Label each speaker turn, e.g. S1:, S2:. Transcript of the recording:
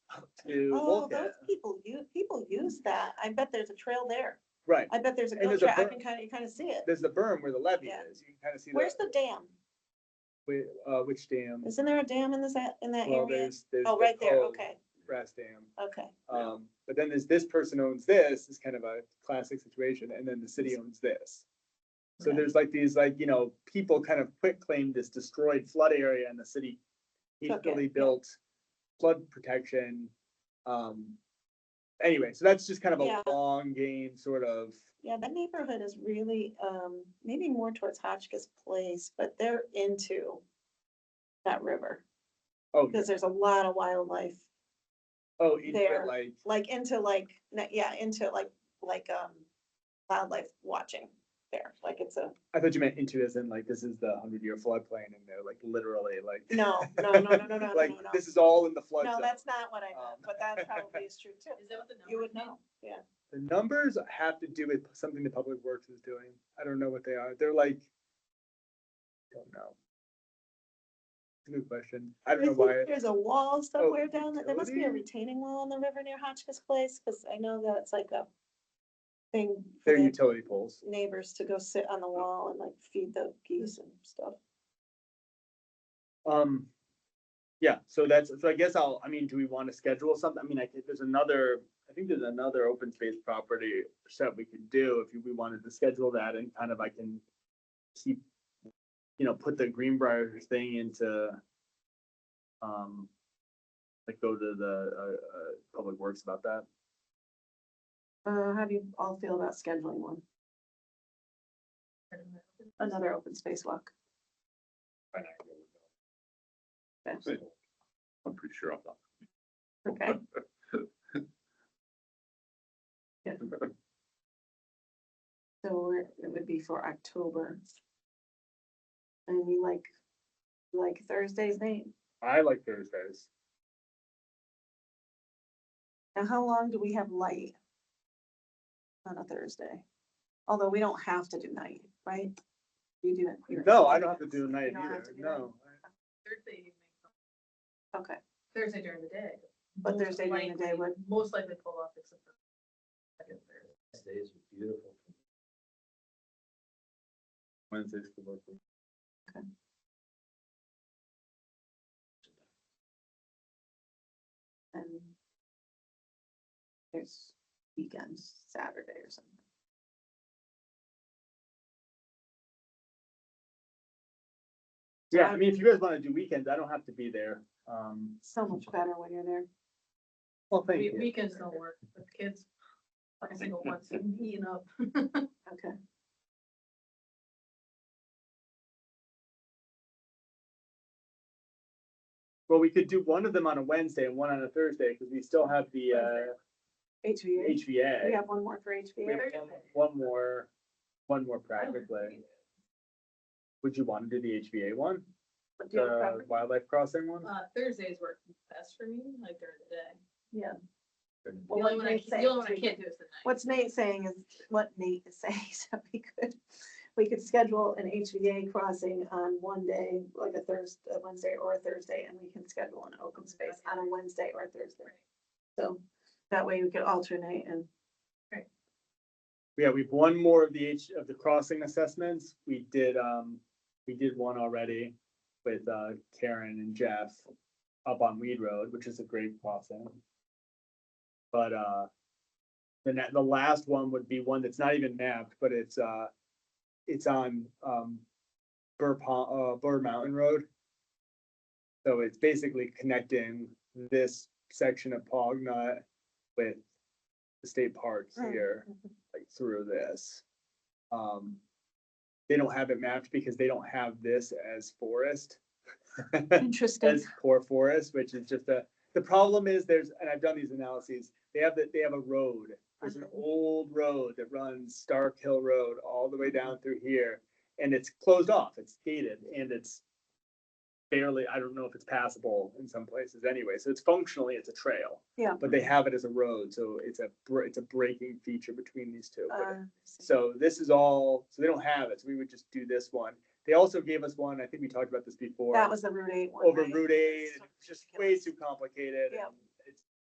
S1: to
S2: Oh,
S1: look
S2: those
S1: at.
S2: people, you, people use that. I bet there's a trail there.
S1: Right,
S2: I bet there's a
S1: And
S2: goat
S1: there's a
S2: trail. I
S1: berm.
S2: can kind of, you kind of see it.
S1: there's the berm where the levee
S2: Yeah.
S1: is, you can kind of see
S2: Where's
S1: the,
S2: the dam?
S1: wi- uh, which dam.
S2: Isn't there a dam in this, a- in that
S1: Well,
S2: area?
S1: there's, there's.
S2: Oh,
S1: the
S2: right there.
S1: Cove
S2: Okay,
S1: Grass dam,
S2: okay.
S3: Yeah.
S1: um, but then there's this person owns this, is kind of a classic situation, and then the city owns this. So
S2: Okay.
S1: there's like these, like, you know, people kind of quit claim this destroyed flood area and the city
S2: Took it,
S1: equally
S2: yeah.
S1: built flood protection. Um, anyway, so that's just kind of
S2: Yeah.
S1: a long game sort of,
S2: Yeah, that neighborhood is really, um, maybe more towards Hotchkiss Place, but they're into that river
S1: oh,
S2: because there's a lot of wildlife,
S1: oh, into it,
S2: there.
S1: like,
S2: like into like, na- yeah, into like, like, um, wildlife watching there. Like it's a,
S1: I thought you meant into as in like, this is the hundred year floodplain and they're like literally like.
S2: no, no, no, no, no, no, no,
S1: Like,
S2: no.
S1: this is all in the flood
S2: No,
S1: zone.
S2: that's not what I meant,
S1: uh, Um,
S2: but that probably is true too.
S4: Is that what the
S2: You
S4: numbers
S2: would
S4: mean?
S2: know, yeah.
S1: The numbers have to do with something the public works is doing. I don't know what they are. They're like. Don't know. Good question. I don't know
S2: think
S1: why.
S2: There's a wall somewhere down, there. there must be a
S1: utility?
S2: retaining wall on the river near Hotchkiss Place, because I know that's like a thing for
S1: They're
S2: the
S1: utility poles.
S2: neighbors to go sit on the
S1: Oh.
S2: wall and like feed the geese and stuff.
S1: Um. Yeah, so that's, so I guess I'll, I mean, do we want to schedule something? I mean, I think there's another, I think there's another open space property set we could do if we wanted to schedule that and kind of I can. Keep, you know, put the Greenbrier thing into. Um. Like go to the uh uh Public Works about that.
S2: Uh, how do you all feel about scheduling one, another open space walk? Okay.
S3: I'm pretty sure I'm not.
S2: Okay, so it it would be for October. And you like, you like Thursday's name?
S1: I like Thursdays.
S2: Now, how long do we have light? On a Thursday, although we don't have to do night, right? You do it. you're-
S1: No, I don't have to do a night
S2: You don't have
S1: either,
S2: to do night.
S1: no.
S4: Thursday evening,
S2: Okay,
S4: Thursday during the day.
S2: But
S4: most
S2: Thursday during the day
S4: likely-
S2: would-
S4: Most likely pull off except for. second, third.
S3: Days are beautiful.
S1: Wednesdays could work. for me.
S2: and. There's weekends, Saturday or something.
S1: Yeah, I mean, if you guys wanna do weekends, I don't have to be there, um,
S2: So much better when you're there.
S1: well, thank
S4: We-
S1: you.
S4: Weekends don't work with kids. Every single one's eating up.
S2: Okay.
S1: Well, we could do one of them on a Wednesday and one on a Thursday, because we still have the uh,
S2: HVA, we
S1: HVA.
S2: have one more for
S1: We
S2: HVA.
S1: have one one more, one more
S2: Oh.
S1: practically. Would you want to do the HVA one?
S2: Do you have a
S1: The
S2: preference?
S1: wildlife crossing one?
S4: Uh, Thursdays work best for me, like during the day.
S2: Yeah.
S4: The
S2: Well,
S4: only
S2: what
S4: one I,
S2: Nate's
S4: can- the
S2: saying
S4: only one
S2: is
S4: I
S2: we-
S4: can't do is the night.
S2: What's Nate saying is what Nate is saying, so we could, we could schedule an HVA crossing on one day, like a Thursday, a Wednesday or a Thursday, and we can schedule an open space on a Wednesday or a Thursday. So that way we could alternate and,
S1: Yeah, we've one more of the H, of the crossing assessments. We did, um, we did one already with, uh, Karen and Jeff up on Weed Road, which is a great crossing. But, uh, the, ne- the last one would be one that's not even mapped, but it's, uh, it's on, um, Burr Pond, uh, Burr Mountain Road. So it's basically connecting this section of Pognut with the state parks
S2: Mm.
S1: here like through this. Um, they don't have it mapped because they don't have this as forest.
S2: interesting,
S1: As core forest, which is just a, the problem is there's, and I've done these analyses, they have that, they have a road. There's
S2: Uh-huh.
S1: an old road that runs Stark Hill Road all the
S2: Uh-huh.
S1: way down through here. And it's closed off, it's gated and it's barely, I don't know if it's passable in some places anyway. So it's functionally, it's a trail.
S2: Yeah.
S1: But they have it as a road, so it's a, br- it's a breaking feature between these two. but it-
S2: uh,
S1: so this is all, so they don't have it, so we would just do this one. They also gave us one, I think we talked about this before.
S2: that was the Route Eight one.
S1: Over
S2: right?
S1: Route eight, and it was just way
S2: ridiculous.
S1: too complicated.
S2: Yeah.
S1: and